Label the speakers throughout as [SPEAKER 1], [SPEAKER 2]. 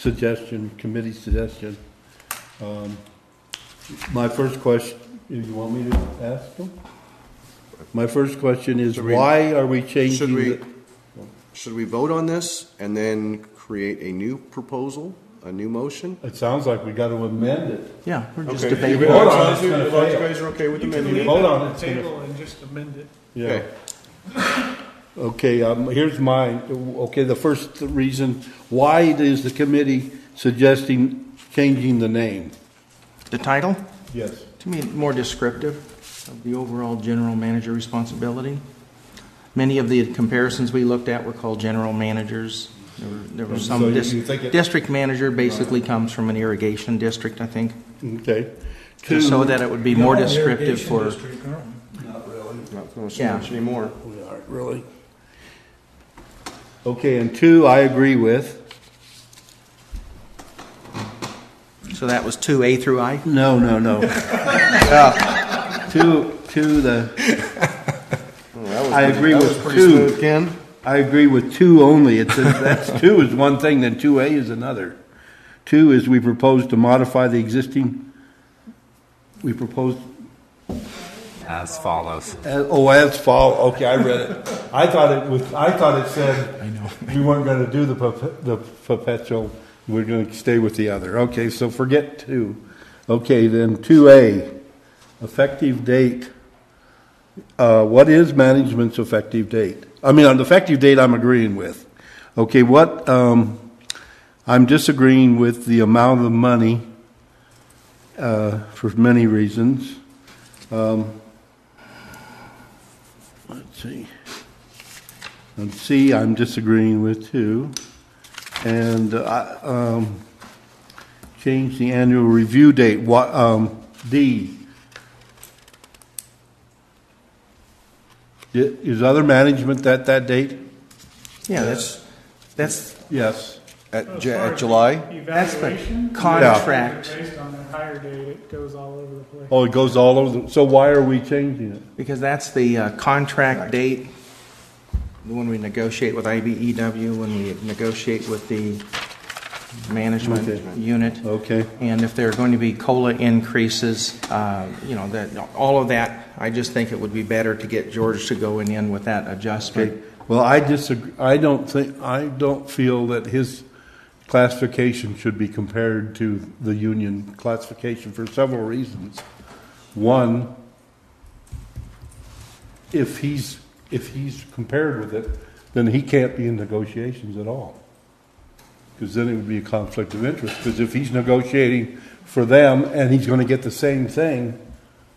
[SPEAKER 1] suggestion, committee suggestion. Um, My first question, you want me to ask them? My first question is,
[SPEAKER 2] Should we-
[SPEAKER 1] why are we changing?
[SPEAKER 2] Should we,
[SPEAKER 1] the-
[SPEAKER 2] should we vote on this and then create a new proposal, a new motion?
[SPEAKER 1] It sounds like we got to amend it.
[SPEAKER 3] Yeah, we're just
[SPEAKER 2] Okay.
[SPEAKER 3] debating.
[SPEAKER 1] Hold on,
[SPEAKER 2] As long as
[SPEAKER 1] it's
[SPEAKER 2] you
[SPEAKER 1] gonna
[SPEAKER 2] as long as you
[SPEAKER 1] fail.
[SPEAKER 2] guys are okay with the
[SPEAKER 4] You can
[SPEAKER 2] menu.
[SPEAKER 4] leave it
[SPEAKER 1] Hold on,
[SPEAKER 4] on the
[SPEAKER 1] it's gonna-
[SPEAKER 4] table and just amend it.
[SPEAKER 1] Yeah.
[SPEAKER 2] Okay.
[SPEAKER 1] Okay, um, here's mine. Okay, the first reason, why is the committee suggesting changing the name?
[SPEAKER 3] The title,
[SPEAKER 1] Yes.
[SPEAKER 3] to me, more descriptive of the overall general manager responsibility. Many of the comparisons we looked at were called general managers. There were, there were
[SPEAKER 1] And
[SPEAKER 3] some
[SPEAKER 1] so you-
[SPEAKER 3] dis-
[SPEAKER 1] you think it-
[SPEAKER 3] district manager basically comes from an irrigation district, I think,
[SPEAKER 1] Okay.
[SPEAKER 3] just so
[SPEAKER 1] Two-
[SPEAKER 3] that it would be more descriptive for.
[SPEAKER 2] Not going
[SPEAKER 3] Yeah.
[SPEAKER 2] much anymore.
[SPEAKER 1] We aren't really. Okay, and two, I agree with.
[SPEAKER 3] So that was two A through I.
[SPEAKER 1] No, no, no. Yeah. Two, two, the,
[SPEAKER 2] Oh, that was
[SPEAKER 1] I
[SPEAKER 2] pretty-
[SPEAKER 1] agree
[SPEAKER 2] that
[SPEAKER 1] with
[SPEAKER 2] was pretty
[SPEAKER 1] two.
[SPEAKER 2] smooth, Ken.
[SPEAKER 1] I agree with two only. It's, that's two is one thing, then two A is another. Two is we propose to modify the existing, we propose,
[SPEAKER 5] as follows.
[SPEAKER 1] uh, oh, as follow, okay, I read it. I thought it was, I thought it said. I know. We weren't gonna do the perp- the perpetual, we're gonna stay with the other. Okay, so forget two. Okay, then two A, effective date. uh, what is management's effective date? I mean, on the effective date, I'm agreeing with. Okay, what, um, I'm disagreeing with the amount of money, uh, for many reasons. Um, let's see. And C, I'm disagreeing with too. And, uh, I, um, change the annual review date, what, um, D, i- is other management that, that date?
[SPEAKER 3] Yeah, that's, that's,
[SPEAKER 1] Yes.
[SPEAKER 2] At,
[SPEAKER 4] As
[SPEAKER 2] Ju-
[SPEAKER 4] far
[SPEAKER 2] at
[SPEAKER 4] as
[SPEAKER 2] July?
[SPEAKER 3] that's the
[SPEAKER 4] Evaluation.
[SPEAKER 3] contract.
[SPEAKER 4] Based on that higher date, it goes all over the place.
[SPEAKER 1] Oh, it goes all over, the- so why are we changing it?
[SPEAKER 3] Because that's the uh, contract date, the one we negotiate with IBEW, when we negotiate with the management
[SPEAKER 1] Okay.
[SPEAKER 3] unit.
[SPEAKER 1] Okay.
[SPEAKER 3] And if there are going to be COLA increases, uh, you know, that, all of that, I just think it would be better to get George to go in with that
[SPEAKER 1] Okay,
[SPEAKER 3] adjustment.
[SPEAKER 1] well, I disagree, I don't think, I don't feel that his classification should be compared to the union classification for several reasons. One, if he's, if he's compared with it, then he can't be in negotiations at all. Because then it would be a conflict of interest, because if he's negotiating for them and he's gonna get the same thing,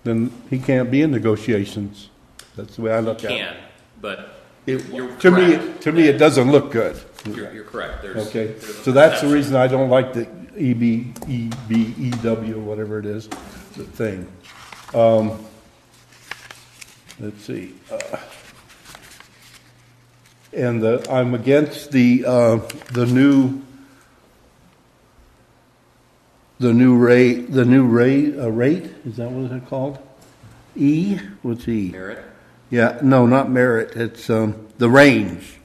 [SPEAKER 1] then he can't be in negotiations. That's the way I look at it.
[SPEAKER 6] can, but You're
[SPEAKER 1] It, to me,
[SPEAKER 6] correct.
[SPEAKER 1] to me, it doesn't look good.
[SPEAKER 6] you're, you're correct. There's,
[SPEAKER 1] Okay,
[SPEAKER 6] there's a
[SPEAKER 1] so that's the
[SPEAKER 6] perception.
[SPEAKER 1] reason I don't like the E EB, EB, EW, E whatever it is, the thing. Um, let's see. uh, And the, I'm against the, uh, the new, the new rate, the new rate, uh, rate, is that what it's called? E, what's E?
[SPEAKER 6] Merit.
[SPEAKER 1] Yeah, no, not merit, it's, um, the range.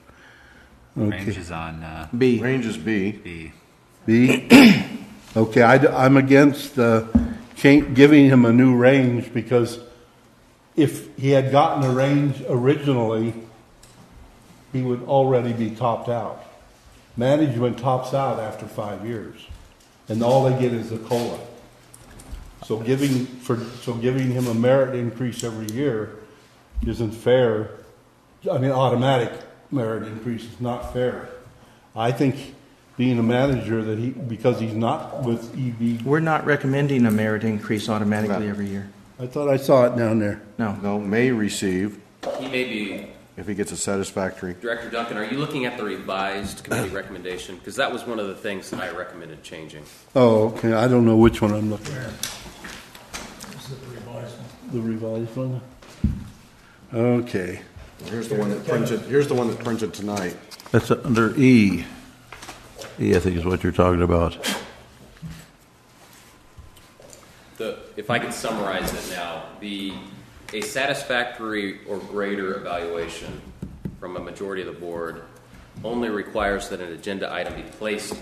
[SPEAKER 5] Range is on uh,
[SPEAKER 3] B,
[SPEAKER 2] Range is B.
[SPEAKER 5] B.
[SPEAKER 1] B? Okay, I, am against uh, cha- giving him a new range because if he had gotten a range originally, he would already be topped out. Management tops out after five years, and all they get is a COLA. So giving, for, so giving him a merit increase every year isn't fair. I mean, automatic merit increase is not fair. I think being a manager that he, because he's not with E EB,
[SPEAKER 3] we're not recommending a merit increase automatically every year.
[SPEAKER 1] I thought I saw it down there.
[SPEAKER 3] No,
[SPEAKER 2] No, may receive
[SPEAKER 6] He may be,
[SPEAKER 2] if he gets a satisfactory.
[SPEAKER 6] Director Duncan, are you looking at the revised committee recommendation? Because that was one of the things that I recommended changing.
[SPEAKER 1] Oh, okay, I don't know which one I'm looking at. The revised one? Okay.
[SPEAKER 2] Here's the one that printed, here's the one that printed tonight.
[SPEAKER 7] That's under E. E, I think is what you're talking about.
[SPEAKER 6] The, if I could summarize it now, the, a satisfactory or greater evaluation from a majority of the board only requires that an agenda item be placed